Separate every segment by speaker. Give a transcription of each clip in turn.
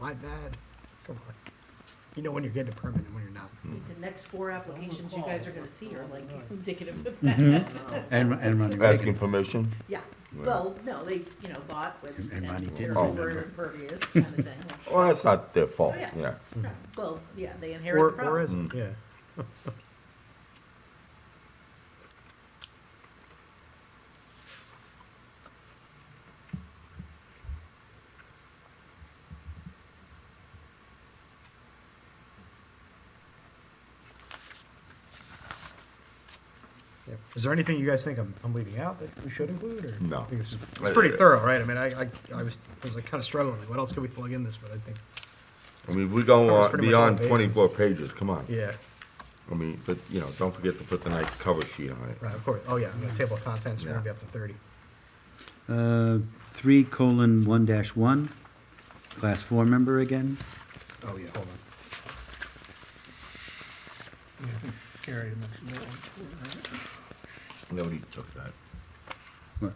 Speaker 1: my bad. Come on. You know when you're getting a permit and when you're not.
Speaker 2: The next four applications you guys are gonna see are like indicative of
Speaker 3: Mhm.
Speaker 2: that.
Speaker 3: And, and money.
Speaker 4: Asking permission?
Speaker 2: Yeah, well, no, they, you know, bought with,
Speaker 3: And- and Ronnie
Speaker 2: and
Speaker 3: didn't
Speaker 2: they're over
Speaker 3: remember.
Speaker 2: impervious kind of thing.
Speaker 4: Well, that's not their fault,
Speaker 2: Oh, yeah.
Speaker 4: yeah.
Speaker 2: Yeah, Well, yeah, they
Speaker 1: Or,
Speaker 2: inherit the
Speaker 1: or
Speaker 2: problem.
Speaker 1: is it? Yeah. Yep. Is there anything you guys think I'm, I'm leaving out that we should include, or?
Speaker 4: No.
Speaker 1: I think uh, this is, it's pretty thorough, right? I mean, I, I, I was, I was like kinda struggling, like, what else could we plug in this, but I think,
Speaker 4: I mean, we go
Speaker 1: Covers
Speaker 4: on
Speaker 1: pretty much all
Speaker 4: beyond
Speaker 1: bases.
Speaker 4: twenty-four pages, come on.
Speaker 1: yeah,
Speaker 4: I mean, but, you know, don't forget to put the nice cover sheet on it.
Speaker 1: right, of course, oh yeah, the table of contents, we're gonna
Speaker 4: Yeah.
Speaker 1: be up to thirty.
Speaker 3: Uh, three colon one dash one, class four member again.
Speaker 1: Oh, yeah, hold on.
Speaker 5: Yeah, I think Gary had mentioned that one.
Speaker 4: Nobody took that.
Speaker 3: What?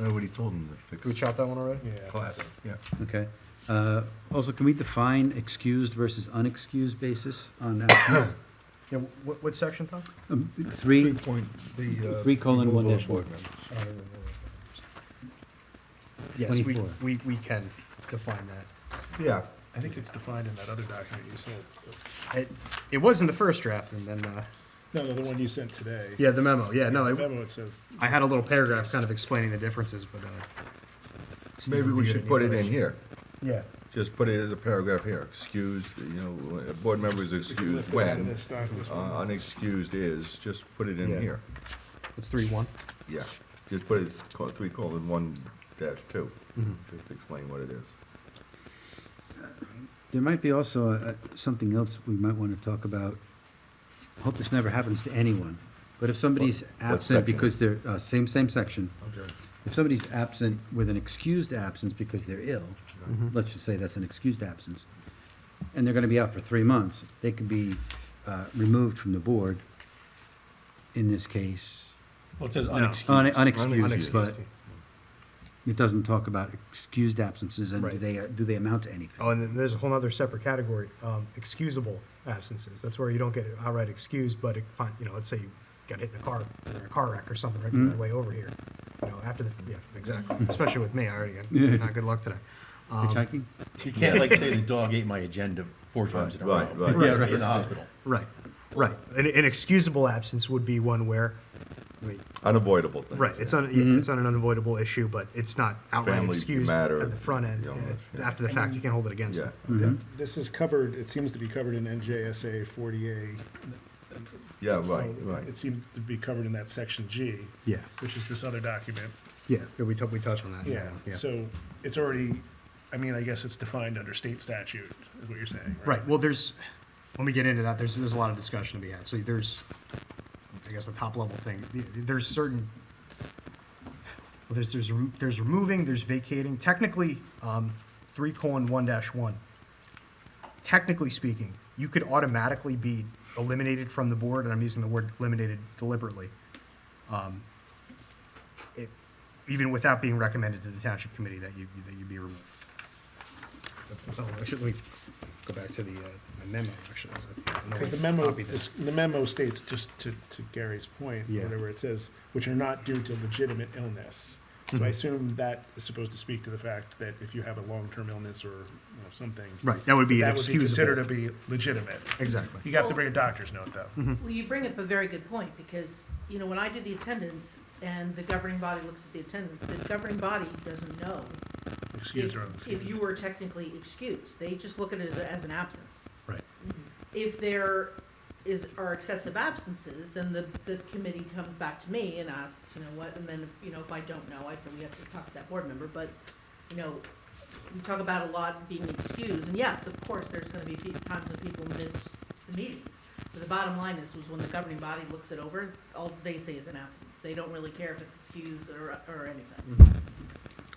Speaker 4: Nobody told them to
Speaker 1: Did we
Speaker 4: fix
Speaker 1: chop that one already?
Speaker 5: Yeah.
Speaker 4: class, yeah.
Speaker 3: Okay. Uh, also, can we define excused versus unexcused basis on actions?
Speaker 1: Yeah, what, what section, Tom?
Speaker 3: Um, Three,
Speaker 4: point, the,
Speaker 1: uh,
Speaker 3: Three colon one dash one.
Speaker 1: Yes, we,
Speaker 3: 24.
Speaker 1: we, we can define that.
Speaker 4: Yeah,
Speaker 5: I think it's defined in that other document you sent.
Speaker 1: It, it was in the first draft and then, uh,
Speaker 5: No, no, the one you sent today.
Speaker 1: yeah, the memo, yeah, no,
Speaker 5: The
Speaker 1: I,
Speaker 5: memo, it says,
Speaker 1: I had a little paragraph kind of explaining the differences, but, uh. Steve
Speaker 4: maybe
Speaker 1: would
Speaker 4: we
Speaker 1: be
Speaker 4: should
Speaker 1: good
Speaker 4: put it in
Speaker 1: information.
Speaker 4: here.
Speaker 1: Yeah,
Speaker 4: Just put it as a paragraph here, excused, you know, uh, board members
Speaker 5: we can
Speaker 4: excused
Speaker 5: lift it out of
Speaker 4: when,
Speaker 5: this doc, this
Speaker 4: uh,
Speaker 5: one.
Speaker 4: unexcused is, just put it
Speaker 1: Yeah.
Speaker 4: in here.
Speaker 1: it's three one.
Speaker 4: Yeah, just put it, as col- three colon one dash two,
Speaker 1: Mm-hmm.
Speaker 4: just explain what it is.
Speaker 3: there might be also uh, something else we might want to talk about. I Hope this never happens to anyone, but if somebody's absent
Speaker 4: section?
Speaker 3: because they're, uh, same, same section.
Speaker 4: Okay.
Speaker 3: If somebody's absent with an excused absence because they're ill, let's just say that's an excused absence, and they're gonna be out for three months, they could be, uh, removed from the board in this case.
Speaker 6: Well, Oh, it says
Speaker 3: Un-
Speaker 6: unexcused.
Speaker 3: Unexcused,
Speaker 4: Unexcused.
Speaker 3: but it doesn't talk about excused absences and do
Speaker 1: Right.
Speaker 3: they, do they amount to anything?
Speaker 1: Oh, and then there's a whole other separate category, um, excusable absences. That's where you don't get outright excused, but it, fin- you know, let's say you got hit in a car, or a car wreck or something right on the way over here. You know, after the, yeah, exactly. Especially with me, I already got, not good luck today.
Speaker 4: Oh,
Speaker 1: Um,
Speaker 3: Hitchhiking?
Speaker 6: You can't like say the dog ate my agenda four times in a row.
Speaker 4: Right, right.
Speaker 6: Yeah, right. In the hospital.
Speaker 1: right, right. An, an excusable absence would be one where, I mean,
Speaker 4: Unavoidable things.
Speaker 1: right, it's on, yeah, it's on an unavoidable issue, but it's not outright
Speaker 4: Family
Speaker 1: excused at
Speaker 4: matter,
Speaker 1: the front end.
Speaker 4: you know,
Speaker 1: Yeah,
Speaker 4: yeah.
Speaker 1: After the fact, you can't hold it against
Speaker 4: Yeah,
Speaker 1: them.
Speaker 5: Th- This is covered, it seems to be covered in NJSA 40A.
Speaker 4: yeah, right,
Speaker 5: Well,
Speaker 4: right.
Speaker 5: Oh, It seems to be covered in that section G.
Speaker 1: Yeah.
Speaker 5: Which is this other document.
Speaker 1: Yeah, we tou- we touched on that.
Speaker 5: Yeah, so it's already, I mean, I guess it's defined under state statute, is what you're saying, right?
Speaker 1: Right, well, there's, when we get into that, there's, there's a lot of discussion to be had, so there's, I guess, the top level thing, The- there's certain, well, there's, there's, rem- there's removing, there's vacating, technically, um, three colon one dash one, technically speaking, you could automatically be eliminated from the board, and I'm using the word eliminated deliberately, um, it, even without being recommended to the township committee that you, that you be removed. Oh, actually, let me go back to the, uh, my memo, actually. is it? No,
Speaker 5: Because the
Speaker 1: I
Speaker 5: memo,
Speaker 1: copied that.
Speaker 5: dis- the memo states, just to, to Gary's point,
Speaker 1: Yeah.
Speaker 5: whatever it says, which are not due to legitimate illness.
Speaker 1: Hmm.
Speaker 5: So I assume that is supposed to speak to the fact that if you have a long-term illness or, you know, something.
Speaker 1: Right, that would be
Speaker 5: That would be considered to
Speaker 1: inexcusable.
Speaker 5: be legitimate.
Speaker 1: Exactly. Mm-hmm.
Speaker 5: You have to bring a doctor's note, though.
Speaker 2: Well, you bring up a very good point, because, you know, when I do the attendance and the governing body looks at the attendance, the governing body doesn't know
Speaker 5: Excuse
Speaker 2: if,
Speaker 5: or
Speaker 2: if you
Speaker 5: unexcused.
Speaker 2: were technically excused. They just look at it as, as an absence.
Speaker 1: Right.
Speaker 2: If there is, are excessive absences, then the, the committee comes back to me and asks, you know, what, and then, you know, if I don't know, I say we have to talk to that board member, but, you know, we talk about a lot being excused, and yes, of course, there's gonna be pe- times when people miss the meetings. But the bottom line is, was when the governing body looks it over, all they say is an absence. They don't really care if it's excused or, or anything.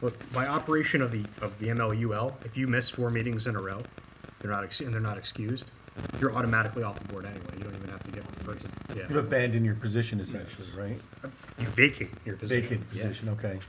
Speaker 1: Look, by operation of the, of the MLUL, if you miss four meetings in a row, they're not, ex- and they're not excused, you're automatically off the board anyway. You don't even have to get the person. Yeah.
Speaker 6: abandoned your position essentially, right?
Speaker 1: You vacate your position.
Speaker 6: okay.